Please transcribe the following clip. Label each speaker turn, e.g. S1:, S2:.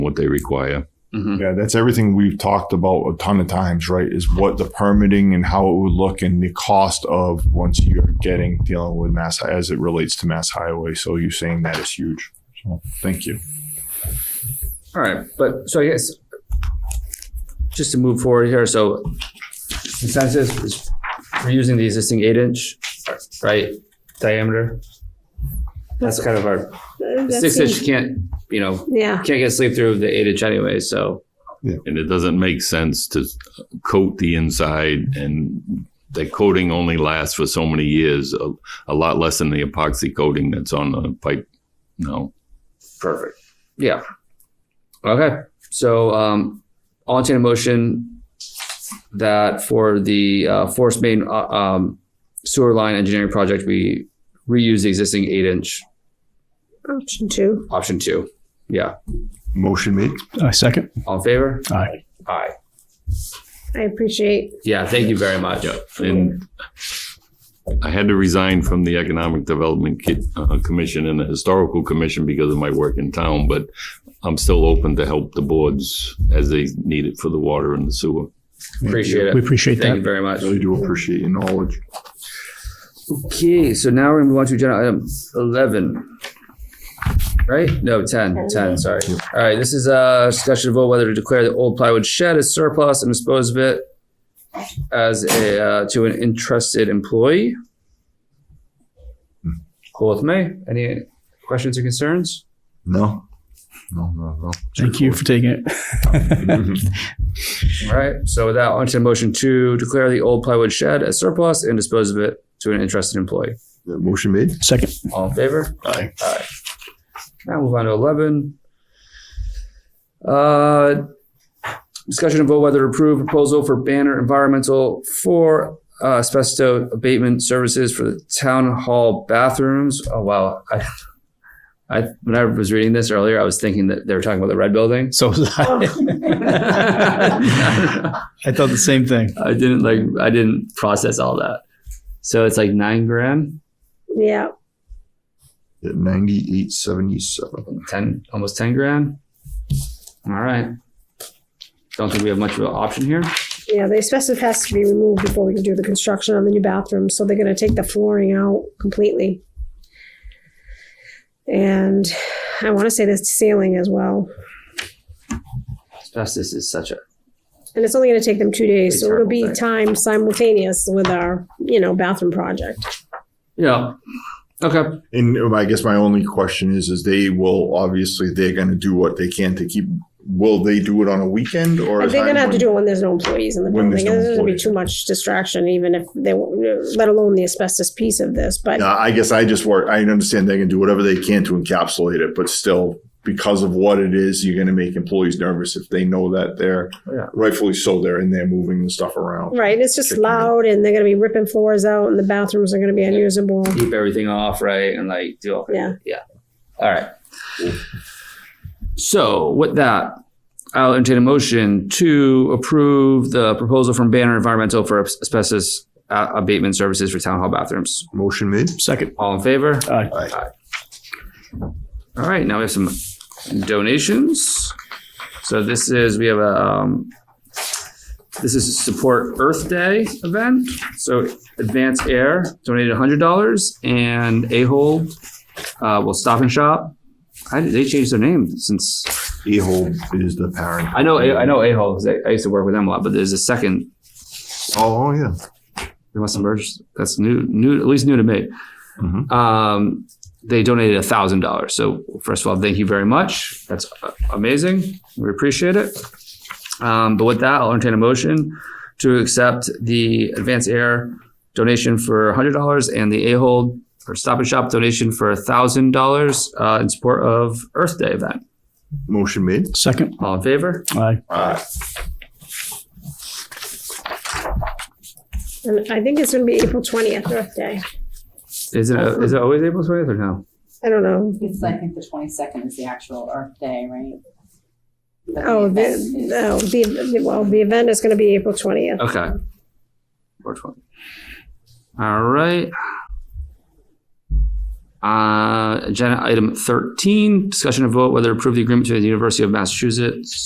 S1: what they require.
S2: Mhm.
S3: Yeah, that's everything we've talked about a ton of times, right? Is what the permitting and how it would look and the cost of once you're getting dealing with mass as it relates to mass highway. So you saying that is huge. So thank you.
S2: All right, but so I guess just to move forward here, so consensus is we're using the existing eight inch, right, diameter. That's kind of our
S4: That
S2: six inch
S4: seems-
S2: can't, you know,
S4: Yeah,
S2: can't get sleep through the eight inch anyway, so
S1: And it doesn't make sense to coat the inside and the coating only lasts for so many years, a, a lot less than the epoxy coating that's on the pipe now.
S2: perfect. Yeah. Okay, so um I'll entertain a motion that for the uh force main uh, um sewer line engineering project, we reuse the existing eight inch
S4: option two.
S2: option two. Yeah.
S3: Motion made.
S5: I second.
S2: All in favor?
S5: Aye.
S2: Aye.
S4: I appreciate.
S2: Yeah, thank you very much.
S1: And I had to resign from the Economic Development Ki- uh, Commission and the Historical Commission because of my work in town, but I'm still open to help the boards as they need it for the water and the sewer.
S2: Appreciate
S5: We
S2: it.
S5: appreciate
S2: Thank you
S5: that.
S2: very much.
S3: Really do appreciate your knowledge.
S2: Okay, so now we're gonna move on to agenda item eleven. Right? No, 10. 10, sorry. All right, this is a discussion of vote whether to declare the old plywood shed as surplus and dispose of it as a, uh, to an interested employee.
S5: Hmm.
S2: Cool with me. Any questions or concerns?
S3: No. No, no, no.
S5: Thank you for taking it.
S2: All right, so with that, on to motion to declare the old plywood shed as surplus and dispose of it to an interested employee.
S3: Motion made.
S5: Second.
S2: All in favor?
S3: Aye.
S2: Aye. Now move on to eleven. Uh, discussion of vote whether to approve proposal for Banner Environmental for uh, asbestos abatement services for the town hall bathrooms. Oh wow, I, I when I was reading this earlier, I was thinking that they were talking about the red building.
S5: So was I.
S2: I
S5: I thought the same thing.
S2: didn't like. I didn't process all that. So it's like nine grand,
S4: Yeah,
S3: Ninety-eight seventy-seven.
S2: ten, almost ten grand. All right. Don't think we have much of an option here.
S4: yeah, the asbestos has to be removed before we can do the construction on the new bathroom, so they're gonna take the flooring out completely. And I wanna say the ceiling as well,
S2: Asbestos is such a
S4: and it's only gonna take them two days, so it'll be
S2: Terrible
S4: time simultaneous with our, you know, bathroom project.
S2: yeah. Okay.
S3: And um, I guess my only question is, is they will, obviously, they're gonna do what they can to keep, will they do it on a weekend or?
S4: But
S3: is
S4: they're
S3: that
S4: gonna have to
S3: when-
S4: do it when there's no employees in the
S3: When there's
S4: building,
S3: no
S4: there's gonna be
S3: employees.
S4: too much distraction, even if they, let alone the asbestos piece of this, but.
S3: No, I guess I just work. I understand they can do whatever they can to encapsulate it, but still, because of what it is, you're going to make employees nervous if they know that they're
S2: Yeah.
S3: rightfully so they're in there moving the stuff around.
S4: Right, and it's just
S3: Chicken.
S4: loud, and they're gonna be ripping floors out, and the bathrooms are gonna be unusable.
S2: Keep everything off, right? And like do all
S4: Yeah.
S2: Yeah. All right. So with that, I'll entertain a motion to approve the proposal from Banner Environmental for asbestos uh, abatement services for town hall bathrooms.
S3: Motion made.
S5: Second.
S2: All in favor?
S5: Aye.
S2: All right, now we have some donations. So this is we have a um, this is a support Earth Day event. So Advance Air donated hundred dollars, and A Hole uh, will stop and shop. I, they changed their name since
S3: Ahold is the parent.
S2: I know I know A Hole. I, I used to work with them a lot, but there's a second
S3: Oh, oh, yeah.
S2: They must emerge. That's new, new, at least new to me.
S3: Mhm.
S2: Um, they donated a thousand dollars. So first of all, thank you very much. That's a- amazing. We appreciate it. Um, but with that, I'll entertain a motion to accept the Advance Air donation for hundred dollars and the A-Hold or Stop and Shop donation for a thousand dollars uh, in support of Earth Day event.
S3: Motion made.
S5: Second.
S2: All in favor?
S5: Aye.
S4: And I think it's gonna be April twentieth, Earth Day.
S2: Is it is it always April twentieth or no?
S4: I don't know.
S6: It's, I think the twenty-second is the actual Earth Day, right? But
S4: Oh,
S6: event
S4: the,
S6: is-
S4: oh, the, well, the event is gonna be April twentieth.
S2: Okay. Four twenty. All right. Uh, agenda item 13, discussion and vote whether to approve the agreement to the University of Massachusetts